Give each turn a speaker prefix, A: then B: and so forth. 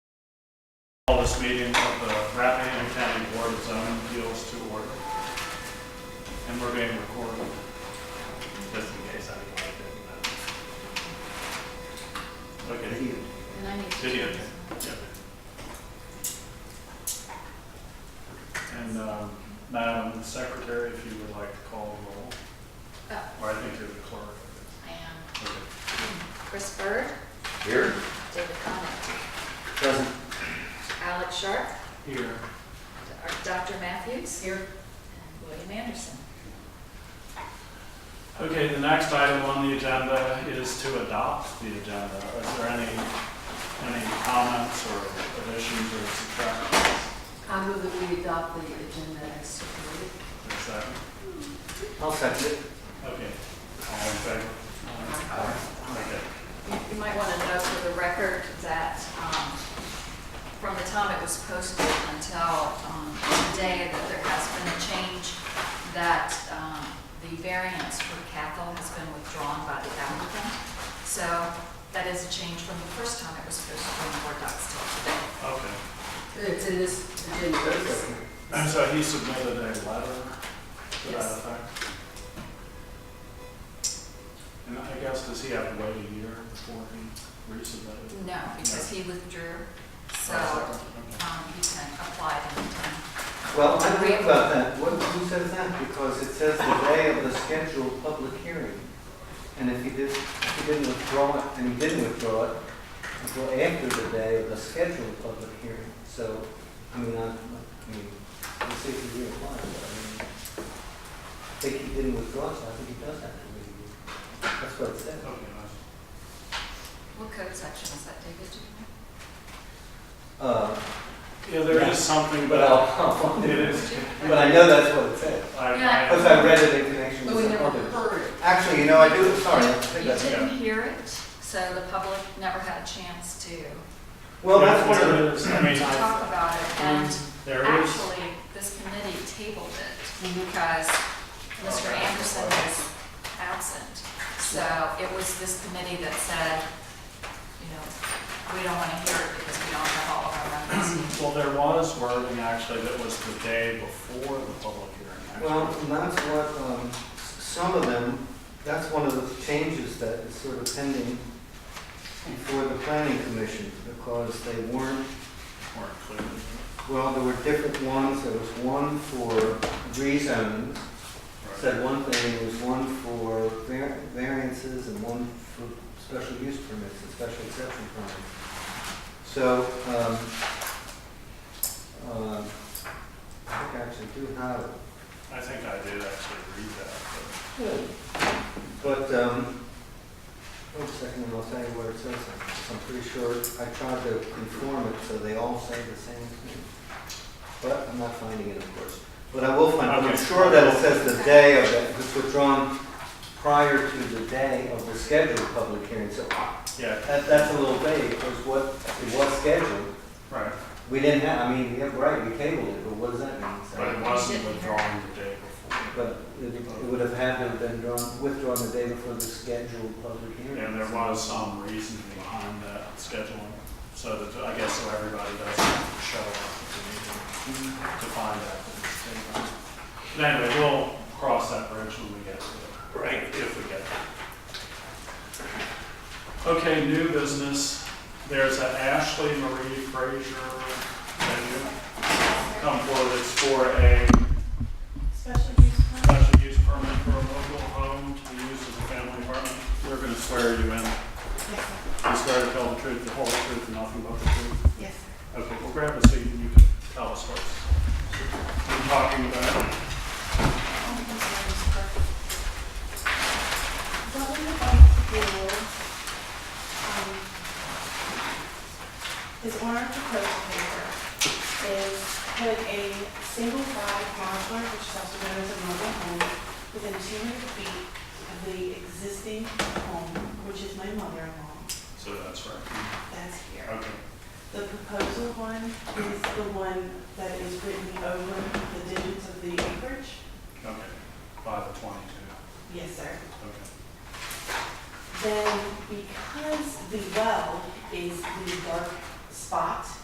A: Call this meeting of the Rappahannock County Board of Zoning Appeals to order. And we're being recorded, just in case anyone didn't know.
B: And I need to.
A: Video.
B: change this.
A: Okay. And um, Madam Secretary, if you would like to call the roll,
B: Oh,
A: or I think you're the clerk.
B: I am.
A: Okay.
B: Chris Bird,
C: Here?
B: David Connell,
C: Present.
B: Alex Sharp,
A: Here.
B: Dr. Matthews. Here. And William Anderson.
A: Okay, the next item on the agenda is to adopt the agenda. Is there any, any comments or additions or subtractions?
D: I move that we adopt the agenda as submitted.
A: Is that,
C: I'll second it.
A: okay, all in favor? Okay.
B: You you might want to note for the record that um, from the time it was posted until um, today, that there has been a change, that um, the variance for Cathal has been withdrawn by the applicant. So that is a change from the first time it was posted on Board Docs till today.
A: Okay.
D: It's in this agenda.
A: And so he submitted a letter to that
B: Yes.
A: effect? And I guess, does he have to wait a year before he resubmitted?
B: No, because he withdrew, so um,
A: Okay.
B: he can apply at any time.
C: Well, I agree about that. What, who says that? Because it says the day of the scheduled public hearing. And if he did, if he didn't withdraw it, and he didn't withdraw it until after the day of the scheduled public hearing. So, I mean, I, I mean, we'll see if he reapplies, but I mean, I think he didn't withdraw, so I think he does have to reapply. That's what it says.
A: Okay,
B: What code section is that, David? Do you know?
C: Uh,
A: nice. Yeah, there is something,
C: but
A: but
C: I'll,
A: it is.
B: Do you-
C: but I know that's what it says.
A: I- I-
B: Yeah.
C: Because I read it in connection
D: But
C: with
D: we
C: the
D: never
C: others.
D: heard it.
C: Actually, you know, I do, sorry. I think
B: You
C: that's-
B: didn't hear it, so the public never had a chance to
C: Well, that's
A: what
C: one of
A: it is. I mean, I-
B: talk about it, and
A: there is.
B: actually, this committee tabled it
C: Mm-hmm.
B: because Mr. Anderson was absent. So it was this committee that said, you know, we don't want to hear it because we don't have all of our members. here."
A: Well, there was wording actually that was the day before the public hearing. actually.
C: Well, and that's what, um, s- some of them, that's one of the changes that is sort of pending before the planning commission, because they weren't,
A: Weren't clear.
C: well, there were different ones. There was one for rezones, said one thing, there was one for var- variances and one for special use permits and special exception permits. So, um, um, I think I actually do have it.
A: I think I did actually read that, but
C: But, um, wait a second, and I'll tell you what it says. I'm pretty sure, I tried to conform it so they all say the same thing. But I'm not finding it, of course. But I will find, it. I'm
A: Okay.
C: sure that it says the day of it, because it's withdrawn prior to the day of the scheduled public hearing. So uh,
A: yeah,
C: that, that's a little vague, because what, it was scheduled.
A: right.
C: We didn't have, I mean, yeah, right, we tabled it, but what does that mean? So-
A: But it wasn't withdrawn the day before.
C: But it it would have had to have been drawn, withdrawn the day before the scheduled public hearing.
A: And there was some reason behind that scheduling, so that, I guess, so everybody doesn't show up at the meeting to find out. that it's taken. But anyway, we'll cross that bridge when we get to it. Right. If we get there. Okay, new business, there's an Ashley Marie Frazier, venue. come forward, it's for a
E: Special use permit?
A: special use permit for a mobile home to be used as a family apartment. We're gonna swear you in.
E: Yes, sir.
A: You swear to tell the truth, the whole truth, and nothing but the truth?
E: Yes, sir.
A: Okay, well, grab a seat and you can tell us what you're talking about.
E: Only concern is parking. What we would like to do, um, is on our proposed paper, is put a single wide modular, which is also known as a mobile home, within two hundred feet of the existing home, which is my mother-in-law,
A: So that's right.
E: that's here.
A: Okay,
E: The proposal one is the one that is written over the digits of the acreage?
A: okay. Five to twenty-two,
E: Yes, sir.
A: okay.
E: Then because the well is the dark spot